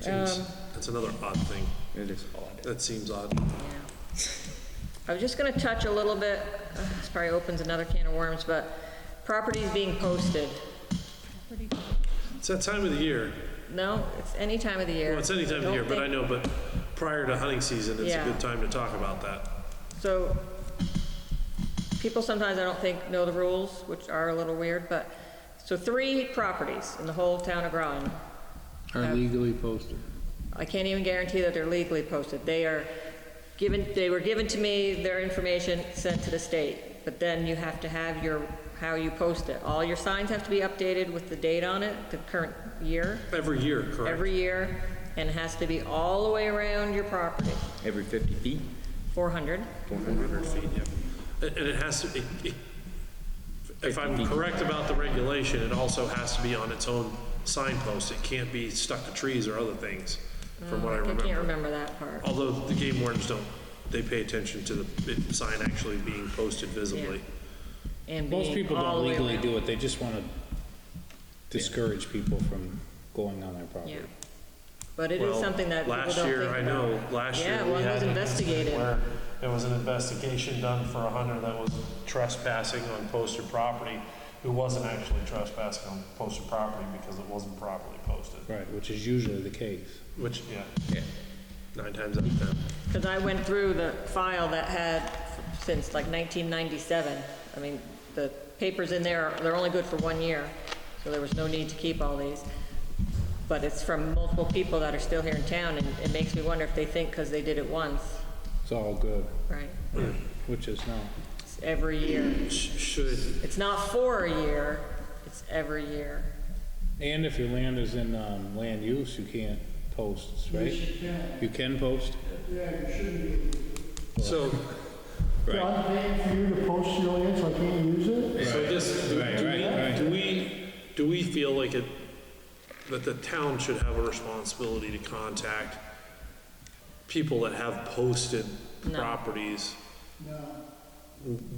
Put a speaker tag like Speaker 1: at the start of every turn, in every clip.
Speaker 1: Jeez,
Speaker 2: Um,
Speaker 1: that's another odd thing.
Speaker 3: It is odd.
Speaker 1: That seems odd.
Speaker 2: I was just gonna touch a little bit, uh, this probably opens another can of worms, but properties being posted.
Speaker 1: It's that time of the year.
Speaker 2: No, it's any time of the year.
Speaker 1: Well, it's any time of the
Speaker 2: Don't
Speaker 1: year, but I
Speaker 2: think-
Speaker 1: know, but prior to hunting season, it's a
Speaker 2: Yeah.
Speaker 1: good time to talk about that.
Speaker 2: So, people sometimes, I don't think, know the rules, which are a little weird, but, so three properties in the whole town of Groton.
Speaker 4: are legally posted.
Speaker 2: I can't even guarantee that they're legally posted. They are given, they were given to me, their information sent to the state, but then you have to have your, how you post it. All your signs have to be updated with the date on it, the current year,
Speaker 1: Every year, correct?
Speaker 2: every year, and it has to be all the way around your property,
Speaker 3: Every 50 feet,
Speaker 2: 400.
Speaker 3: 400.
Speaker 1: And and it has to, it- it- if I'm correct about the regulation, it also has to be on its own signpost. It can't be stuck to trees or other things, from what I
Speaker 2: Mm, I can't
Speaker 1: remember.
Speaker 2: remember that part.
Speaker 1: Although the game wardens don't, they pay attention to the it- sign actually being posted visibly.
Speaker 2: And
Speaker 5: Most
Speaker 2: being
Speaker 5: people
Speaker 2: all
Speaker 5: don't
Speaker 2: the way
Speaker 5: legally
Speaker 2: around.
Speaker 5: do it, they just want to discourage people from going on their
Speaker 2: Yeah.
Speaker 5: property.
Speaker 2: But it is
Speaker 1: Well,
Speaker 2: something that people don't
Speaker 1: Last year,
Speaker 2: think
Speaker 1: I
Speaker 2: about.
Speaker 1: know, last year.
Speaker 2: Yeah,
Speaker 1: we
Speaker 2: well, it
Speaker 1: had
Speaker 2: was
Speaker 1: an
Speaker 2: investigated.
Speaker 1: incident Where there was an investigation done for a hunter that was trespassing on posted property, who wasn't actually trespassing on posted property because it wasn't properly posted.
Speaker 5: Right, which is usually the case.
Speaker 1: Which, yeah. Nine times out of ten.
Speaker 2: Because I went through the file that had since like 1997. I mean, the papers in there, they're only good for one year, so there was no need to keep all these. But it's from multiple people that are still here in town, and it makes me wonder if they think because they did it once,
Speaker 5: It's all good,
Speaker 2: right?
Speaker 5: which is not.
Speaker 2: It's every year.
Speaker 1: Sh- Should,
Speaker 2: It's not for a year, it's every year.
Speaker 5: And if your land is in um, land use, you can't post, right? You can post?
Speaker 1: so,
Speaker 6: Yeah, I'm paying for you to post your land, so I can't use it?
Speaker 1: so this, do-
Speaker 5: Right,
Speaker 1: do
Speaker 5: right, right.
Speaker 1: we, do we, do we feel like it, that the town should have a responsibility to contact people that have posted
Speaker 2: No.
Speaker 1: properties? No.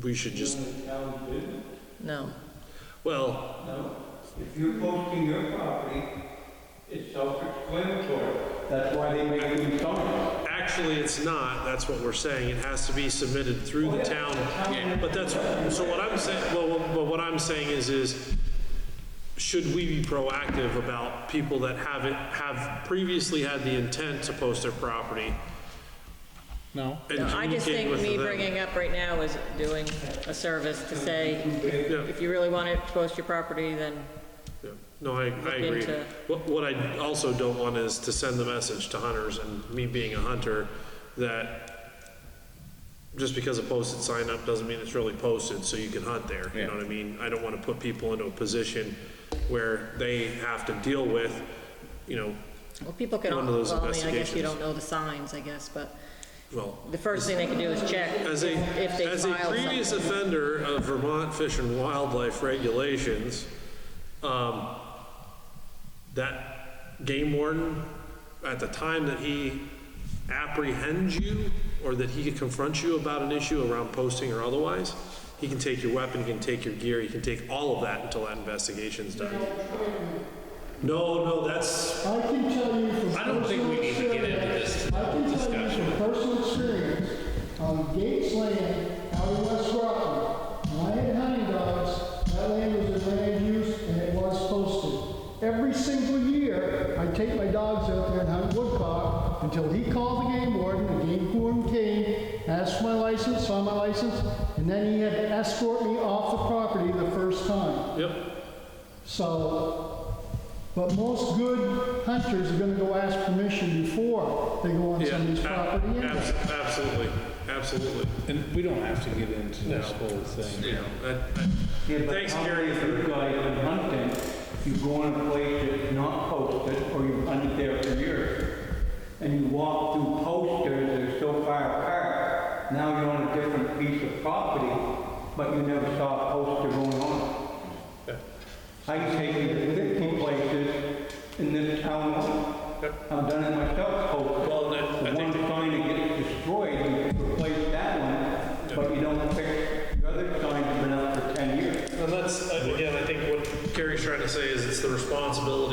Speaker 1: We should just
Speaker 2: No.
Speaker 1: Well,
Speaker 7: If you're posting your property, it's self-explanatory. That's why they make you sell it.
Speaker 1: actually, it's not, that's what we're saying, it has to be submitted through the town. But that's, so what I'm saying, well, well, but what I'm saying is, is should we be proactive about people that haven't, have previously had the intent to post their property?
Speaker 5: No?
Speaker 1: and
Speaker 2: No, I
Speaker 1: communicate
Speaker 2: just think
Speaker 1: with
Speaker 2: me
Speaker 1: them?
Speaker 2: bringing up right now is doing a service to say, if you really want to post your property, then
Speaker 1: Yeah. No, I, I agree.
Speaker 2: into-
Speaker 1: What, what I also don't want is to send the message to hunters and me being a hunter that just because a posted sign up doesn't mean it's really posted, so you can hunt there, you know what I mean? I don't wanna put people into a position where they have to deal with, you know,
Speaker 2: Well, people can,
Speaker 1: One of
Speaker 2: well,
Speaker 1: those
Speaker 2: I mean, I guess you
Speaker 1: investigations.
Speaker 2: don't know the signs, I guess, but
Speaker 1: well,
Speaker 2: the first thing they can do is check if
Speaker 1: As a,
Speaker 2: if they
Speaker 1: as a
Speaker 2: filed
Speaker 1: previous
Speaker 2: something.
Speaker 1: offender of Vermont Fish and Wildlife regulations, um, that game warden, at the time that he apprehends you, or that he confronts you about an issue around posting or otherwise, he can take your weapon, he can take your gear, he can take all of that until that investigation's done. No, no, that's,
Speaker 6: I can tell you from
Speaker 5: I don't think we
Speaker 6: personal
Speaker 5: need to get into
Speaker 6: experience-
Speaker 5: this
Speaker 6: I can tell you
Speaker 5: discussion.
Speaker 6: from personal experience, on Gates Land, out in West Rockland, when I had hunting dogs, that land was in land use and it was posted. Every single year, I take my dogs out there and hunt woodcock until he called the game warden, the game warden came, asked for my license, saw my license, and then he had to escort me off the property the first time.
Speaker 1: yep,
Speaker 6: So, but most good hunters are gonna go ask permission before they go on
Speaker 1: yeah,
Speaker 6: somebody's
Speaker 1: ab-
Speaker 6: property anyway.
Speaker 1: abs- absolutely, absolutely.
Speaker 5: And we don't have to get into this whole
Speaker 1: You
Speaker 5: thing.
Speaker 1: know, I- I-
Speaker 7: Yeah, but
Speaker 1: Thanks,
Speaker 7: how
Speaker 1: Gary,
Speaker 7: many
Speaker 1: for-
Speaker 7: of you guys been hunting, you go in a place that's not posted, or you've hunted there for years, and you walk through posters that are so far apart, now you're on a different piece of property, but you never saw a poster going on. I can take you to different places in this town, I've done it myself, posters.
Speaker 1: Well, I- I
Speaker 7: The
Speaker 1: think-
Speaker 7: one sign that gets destroyed, you replace that one, but you don't fix, the other sign that's been up for 10 years.
Speaker 1: And that's, uh, again, I think what Carrie's trying to say is it's the responsibility